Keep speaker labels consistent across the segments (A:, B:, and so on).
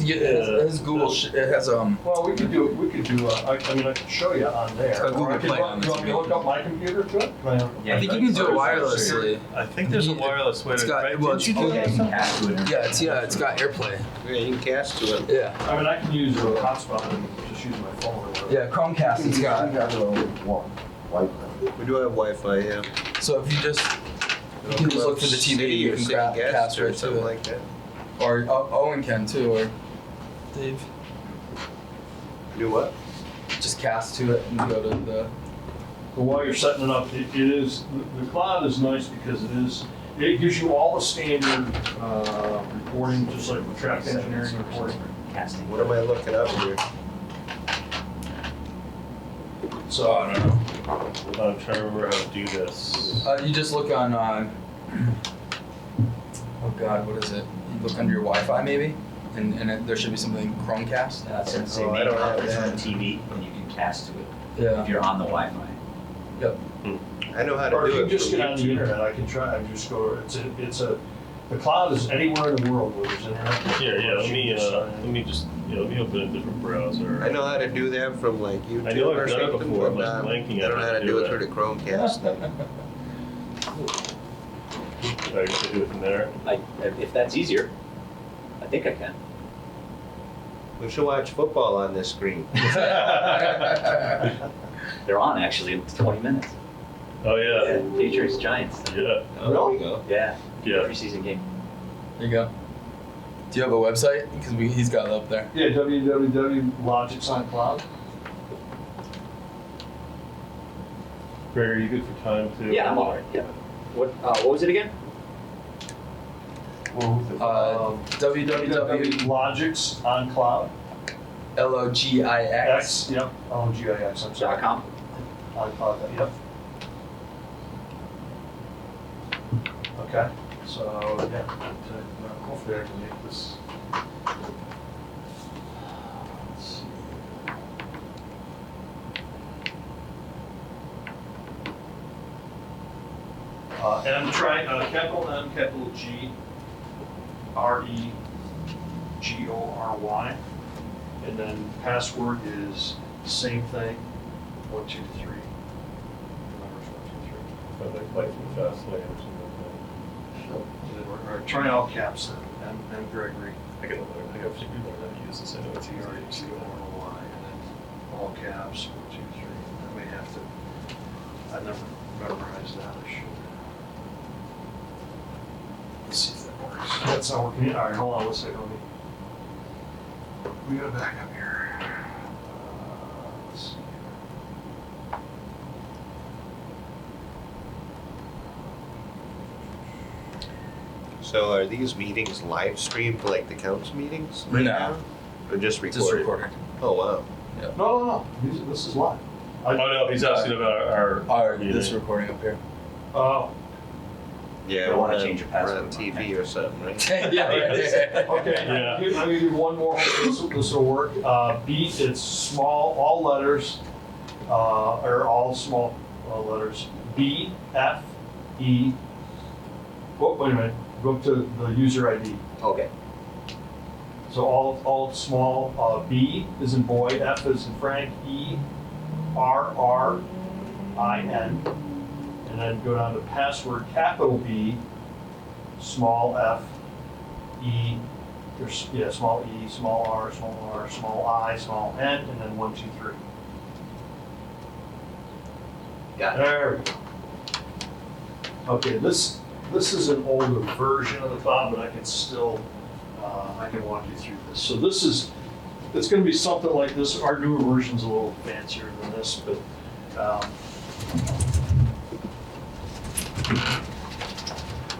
A: Yeah, his, his Google sh- it has um.
B: Well, we could do, we could do, uh, I I mean, I can show you on there.
A: A Google
B: Or I could
A: Play
B: look-
A: on
B: Do you
A: this
B: want me to
A: maybe.
B: hook up my computer to it?
A: I think you can do it wirelessly.
C: I think there's a
A: Yeah.
C: wireless way
A: It's
C: to.
A: got-
C: right?
A: well,
C: Didn't you
A: it's- oh,
C: do that
A: yeah,
C: or
A: you
C: something?
A: Yeah, it's yeah, it's got AirPlay.
D: Yeah, you can cast to it.
A: Yeah,
B: I mean, I can use a hotspot and just use my phone or whatever.
A: yeah, Chromecast. It's got.
D: We do have Wi-Fi, yeah.
A: So if you just you can just look for the TV, you
D: City or
A: can
D: city
A: grab
D: guest
A: cast
D: or
A: right to
D: something
A: it.
D: like that.
A: Or O- Owen can too, or Dave.
D: Do what?
A: Just cast to it and go to the.
B: But while you're setting it up, it it is, the- the cloud is nice because it is, it gives you all the standard uh, reporting, just like with traffic engineering reporting.
E: Casting.
D: What am I looking up here?
B: So,
C: Oh,
B: I don't know.
C: I'm trying to remember how to do this.
A: Uh, you just look on. Uh, oh God, what is it? You look under your Wi-Fi maybe, and and it, there should be something Chromecast.
E: Uh, so it's
D: Oh, I
E: a
D: don't have
E: conference room
D: that.
E: TV, and you can cast to it if
A: Yeah.
E: you're on the Wi-Fi.
D: I know how to
B: Or
D: do
B: if
D: it.
B: you just
D: from
B: get on the
D: YouTube.
B: internet, I can try, I can just go, it's a, it's a, the cloud is anywhere in the world where there's internet.
C: Here, yeah, let me, uh,
B: Sign in.
C: let me just, yeah, let me open a different browser.
D: I know how to do that from like YouTube
C: know I've
D: or
C: done it
D: something,
C: before,
D: but
C: but I'm
D: um,
C: blanking
D: I
C: on
D: don't know how to do it through the Chromecast thing.
C: I can do it from there.
E: Like, if if that's easier, I think I can.
D: We should watch football on this screen.
C: oh,
E: They're on actually in 20 minutes.
C: yeah.
E: Patriots Giants.
C: Yeah.
D: Oh, there we go.
E: Yeah.
C: Yeah.
E: Preseason game.
A: There you go. Do you have a website? Because we he's got it up there.
B: Yeah, www.logic's on cloud.
C: Greg, are you good for time too?
E: Yeah, I'm all right. Yeah. What? Uh, what was it again?
A: Uh,
B: Um, Logic's on cloud.
A: www.logix.
B: X, yep, oh, G I X, I'm
E: Dot
B: sorry.
E: com.
B: On cloud, yep. Okay, so, yeah, uh, hopefully I can make this. Let's see. Uh, and I'm trying, uh, capital M, capital G, R E, G O R Y. And then password is same thing, one, two, three. Numbers one, two, three.
C: Sounds like Viking Fast Lane or something.
B: And then we're- Or try all caps then, M, M Gregory,
C: I gotta learn, I gotta figure out how to use this, I know it's
B: T
C: easy.
B: R E G O R Y, and then all caps, one, two, three. I may have to, I never memorized that, I should. Let's see if that works. That's not working. All right, hold on, one second, let me. We gotta back up here. Uh, Let's see here.
D: So are these meetings live streamed like the council meetings right
A: No.
D: now? Or just recorded?
A: Just recorded.
D: Oh wow.
B: No, no, no. These, this is live.
C: Oh, no, he's asking about our,
A: Our
C: our
A: this
C: meeting.
A: recording up here.
B: Oh,
D: Yeah,
E: Don't
D: we're
E: wanna
D: on-
E: change your
D: We're on
E: password.
D: TV or something, right?
A: yeah. yeah.
B: okay.
C: Yeah.
B: Here, Let me do one more. This will, this will work. Uh, B, it's small, all letters, uh, or all small uh, letters. B, F, E. Oh, wait a minute. Go to the user ID.
E: Okay.
B: So all, all small, uh, B is in boy, F is in Frank, E, R, R, I, N. And then go down to password, capital B, small f, E, or, s- yeah, small E, small R, small R, small I, small N, and then one, two, three.
E: Got
B: There we go. Okay, this, this is an older version of the cloud, but I can still, uh, I can walk you through this. So this is, it's gonna be something like this, our newer version's a little fancier than this, but, um.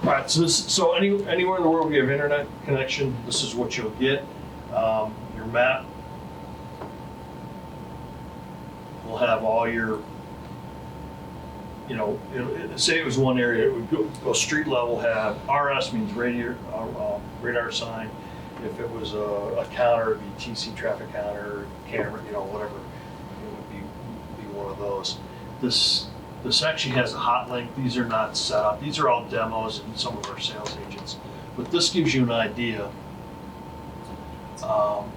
B: All right, so this, so any, anywhere in the world we have internet connection, this is what you'll get. Um, your map will have all your you know, it- it- say it was one area, it would go, go street level, have RS means radar, uh, uh, radar sign. If it was a, a counter, it'd be TC traffic counter, camera, you know, whatever, it would be, be one of those. This, this actually has a hot link, these are not set up, these are all demos and some of our sales agents. But this gives you an idea Um,